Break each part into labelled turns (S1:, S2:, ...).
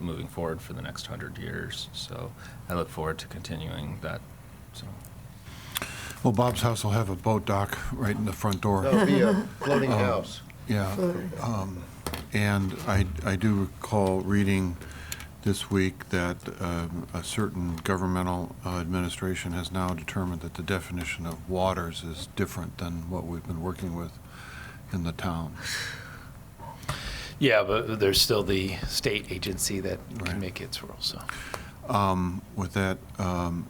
S1: moving forward for the next hundred years. So I look forward to continuing that. So
S2: Well, Bob's house will have a boat dock right in the front door.
S3: That'll be a floating house.
S2: Yeah. um, And I, I do recall reading this week that um, a certain governmental uh, administration has now determined that the definition of waters is different than what we've been working with in the town.
S4: Yeah, but there's still the state agency that
S2: Right.
S4: can make its rules, so.
S2: Um, With that, um,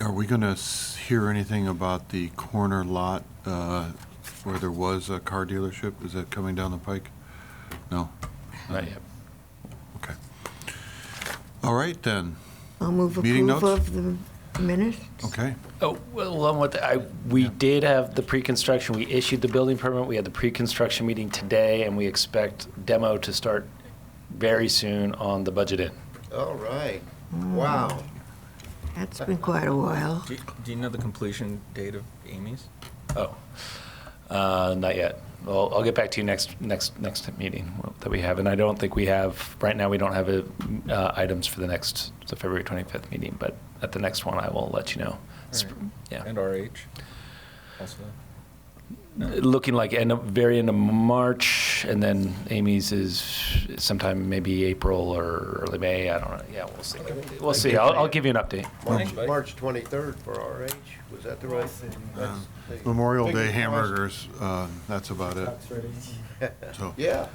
S2: are we going to hear anything about the corner lot uh, where there was a car dealership? Is that coming down the pike? No?
S4: not yet.
S2: Okay. All right, then.
S5: I'll move
S2: Meeting
S5: approval
S2: notes?
S5: of the minutes.
S2: Okay.
S4: Oh, well, along with, I, we did have the pre-construction, we issued the building permit, we had the pre-construction meeting today, and we expect demo to start very soon on the budget in.
S3: All right. Wow.
S5: Mm.
S2: mm.
S5: That's been quite a while.
S1: do, do you know the completion date of Amy's?
S4: Oh, uh, not yet. Well, I'll get back to you next, next, next meeting that we have, and I don't think we have, right now, we don't have, uh, uh, items for the next, the February 25th meeting, but at the next one, I will let you know. Sp-
S1: All right.
S4: Yeah.
S1: And RH also.
S4: looking like end of, very end of March, and then Amy's is sometime maybe April or early May. I don't know. Yeah, we'll see. We'll see. I'll, I'll give you an update.
S3: March,
S1: Mike?
S3: March 23rd for RH. Was that the right? that's-
S2: Memorial Day hamburgers, uh, that's about it. So,
S3: Yeah.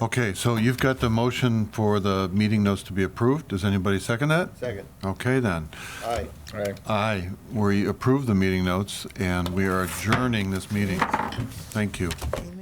S2: okay, so you've got the motion for the meeting notes to be approved. Does anybody second that?
S3: Second.
S2: Okay, then.
S3: Aye.
S1: All right.
S2: Aye, we approve the meeting notes, and we are adjourning this meeting. Thank you.
S5: Amen.